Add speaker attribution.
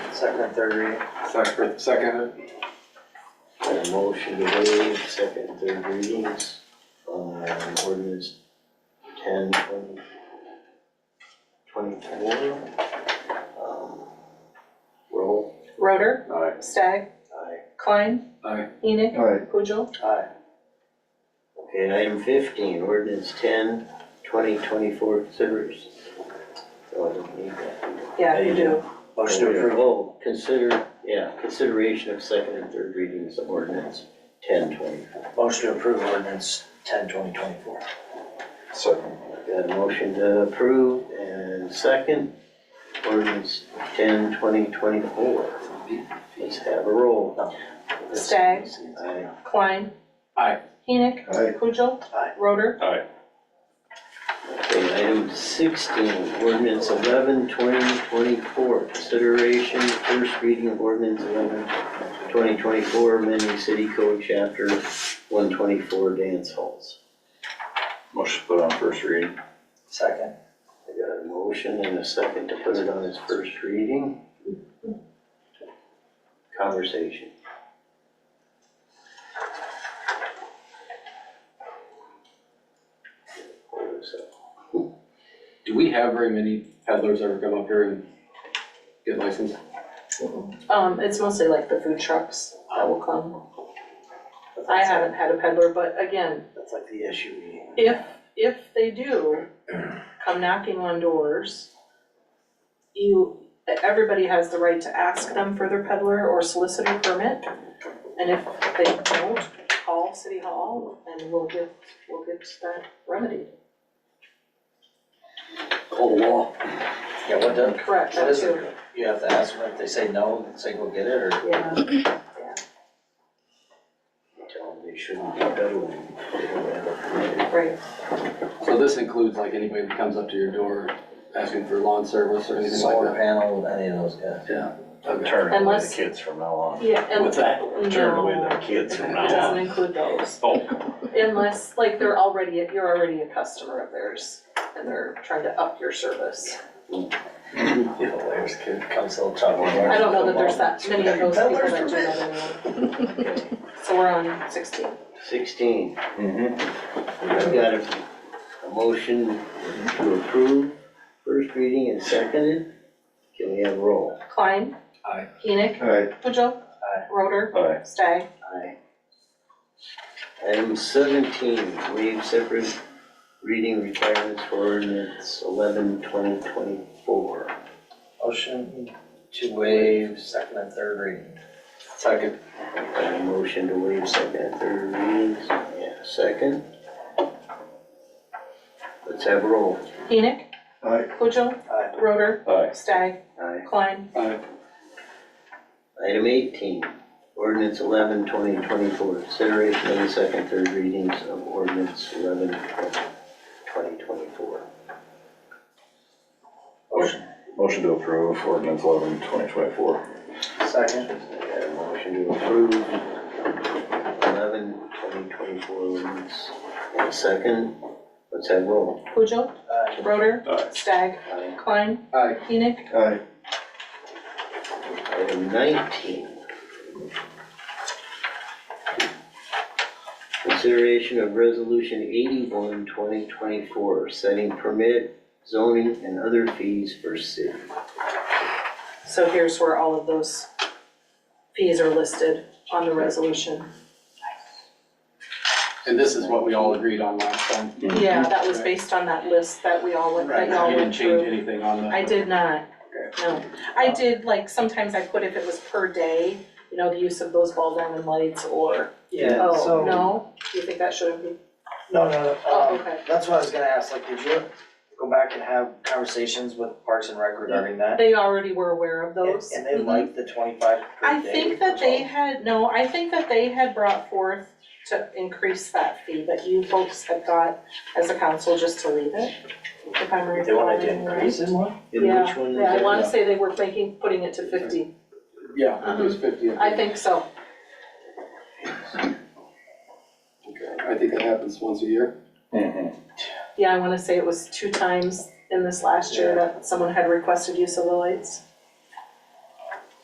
Speaker 1: second and third reading.
Speaker 2: Second, second,
Speaker 3: Got a motion to waive second and third readings on ordinance ten twenty twenty-four. Um, Roll.
Speaker 4: Roder,
Speaker 2: aye,
Speaker 4: Stagg,
Speaker 3: Aye.
Speaker 4: Klein,
Speaker 2: aye,
Speaker 4: Enoch,
Speaker 5: Aye.
Speaker 4: Pujol,
Speaker 1: Aye.
Speaker 3: Okay, item fifteen, ordinance ten twenty twenty-four considers. So I don't need that.
Speaker 4: yeah,
Speaker 3: There
Speaker 4: you
Speaker 3: you
Speaker 4: do,
Speaker 1: Motion to approve.
Speaker 3: Oh, consider, yeah, consideration of second and third readings of ordinance ten twenty.
Speaker 1: Motion to approve ordinance ten twenty twenty-four.
Speaker 5: Second.
Speaker 3: Got a motion to approve and second, ordinance ten twenty twenty-four. Let's have a roll.
Speaker 4: Stagg,
Speaker 3: Aye.
Speaker 4: Klein.
Speaker 2: Aye.
Speaker 4: Enoch,
Speaker 5: Aye.
Speaker 4: Pujol.
Speaker 1: Aye.
Speaker 4: Roder,
Speaker 3: Okay, item sixteen, ordinance eleven twenty twenty-four, consideration, first reading of ordinance eleven twenty twenty-four, amending city code chapter one twenty-four dance halls.
Speaker 2: motion to put on first reading,
Speaker 1: Second.
Speaker 3: I got a motion and a second to put it on its first reading. Conversation. Hold this up.
Speaker 2: do we have very many peddlers ever come up here and get licensed?
Speaker 4: um, it's mostly like the food trucks that will come. I haven't had a peddler, but again,
Speaker 1: That's like the issue we.
Speaker 4: if, if they do come knocking on doors, you, everybody has the right to ask them for their peddler or solicitor permit. And if they don't, call city hall and we'll get, we'll get that remedied.
Speaker 1: Whole law. Yeah, what does,
Speaker 4: Correct,
Speaker 1: what
Speaker 4: that
Speaker 1: is
Speaker 4: too,
Speaker 1: it? You have to ask them if they say no, say go get it, or
Speaker 4: yeah.
Speaker 3: Tell them they shouldn't be peddling. They don't have a permit.
Speaker 4: Right,
Speaker 2: So this includes like anybody that comes up to your door asking for lawn service or anything
Speaker 1: solar
Speaker 2: like that?
Speaker 1: panel, any of those, yeah.
Speaker 2: Okay.
Speaker 6: Turn away the
Speaker 4: Unless-
Speaker 6: kids from now on.
Speaker 4: yeah, and
Speaker 2: What's that?
Speaker 6: Turn away
Speaker 4: no,
Speaker 6: the
Speaker 4: it
Speaker 6: kids from now
Speaker 4: doesn't
Speaker 6: on.
Speaker 4: include those,
Speaker 6: Oh,
Speaker 4: unless, like, they're already, you're already a customer of theirs, and they're trying to up your service.
Speaker 1: Yeah, there's kid comes little chocolate bar.
Speaker 4: I don't know that there's that many of those people that do that anymore,
Speaker 3: Okay.
Speaker 4: so we're on sixteen.
Speaker 3: Sixteen,
Speaker 5: Mm-hmm.
Speaker 3: I've got a, a motion to approve, first reading and seconded. Can we have a roll?
Speaker 4: Klein.
Speaker 2: Aye.
Speaker 4: Enoch.
Speaker 5: Aye.
Speaker 4: Pujol.
Speaker 1: Aye.
Speaker 4: Roder.
Speaker 6: aye.
Speaker 4: Stagg.
Speaker 3: Aye. Item seventeen, waive separate reading requirements for ordinance eleven twenty twenty-four.
Speaker 1: Motion to waive second and third reading.
Speaker 2: Second,
Speaker 3: Got a motion to waive second and third readings, yeah, second. Let's have a roll.
Speaker 4: Enoch.
Speaker 5: Aye.
Speaker 4: Pujol.
Speaker 1: Aye.
Speaker 4: Roder.
Speaker 6: Aye.
Speaker 4: Stagg.
Speaker 3: Aye.
Speaker 4: Klein.
Speaker 2: aye,
Speaker 3: Item eighteen, ordinance eleven twenty twenty-four, consideration of the second, third readings of ordinance eleven twenty twenty-four.
Speaker 1: Motion,
Speaker 6: Motion to approve ordinance eleven twenty twenty-four.
Speaker 1: second.
Speaker 3: Got a motion to approve eleven twenty twenty-four ordinance, and a second, let's have roll.
Speaker 4: Pujol.
Speaker 1: Aye.
Speaker 4: Roder.
Speaker 6: Aye.
Speaker 4: Stagg.
Speaker 3: Aye.
Speaker 4: Klein.
Speaker 2: aye,
Speaker 4: Enoch.
Speaker 5: Aye.
Speaker 3: Item nineteen. Consideration of resolution eighty-one twenty twenty-four, setting permit, zoning, and other fees for city.
Speaker 4: So here's where all of those fees are listed on the resolution.
Speaker 2: and this is what we all agreed on last time?
Speaker 4: Yeah, that was based on that list that we all went, that y'all
Speaker 2: You didn't
Speaker 4: went
Speaker 2: change
Speaker 4: through.
Speaker 2: anything on that?
Speaker 4: I did not, no. I did, like, sometimes I put if it was per day, you know, the use of those ball diamond lights or,
Speaker 1: Yeah,
Speaker 4: oh,
Speaker 1: so.
Speaker 4: no? Do you think that should have been?
Speaker 1: No, no,
Speaker 4: Oh,
Speaker 1: no, um,
Speaker 4: okay.
Speaker 1: that's what I was gonna ask, like, did you go back and have conversations with Parks and Rec regarding that?
Speaker 4: They already were aware of
Speaker 1: And-
Speaker 4: those.
Speaker 1: And they
Speaker 4: Mhm.
Speaker 1: like the twenty-five
Speaker 4: I
Speaker 1: per day.
Speaker 4: think that they had, no, I think that they had brought forth to increase that fee, but you folks had got as a council just to leave it, if I'm
Speaker 1: They
Speaker 4: recalling.
Speaker 1: wanted to
Speaker 4: right.
Speaker 1: increase it more?
Speaker 3: And which one is
Speaker 4: Yeah, I
Speaker 3: that?
Speaker 4: wanna say they were thinking, putting it to fifty,
Speaker 2: Yeah, it was fifty.
Speaker 4: I think so,
Speaker 2: I think that happens once a year.
Speaker 6: Mm-hmm.
Speaker 4: yeah, I wanna say it was two times in this last year that someone had requested use of the lights.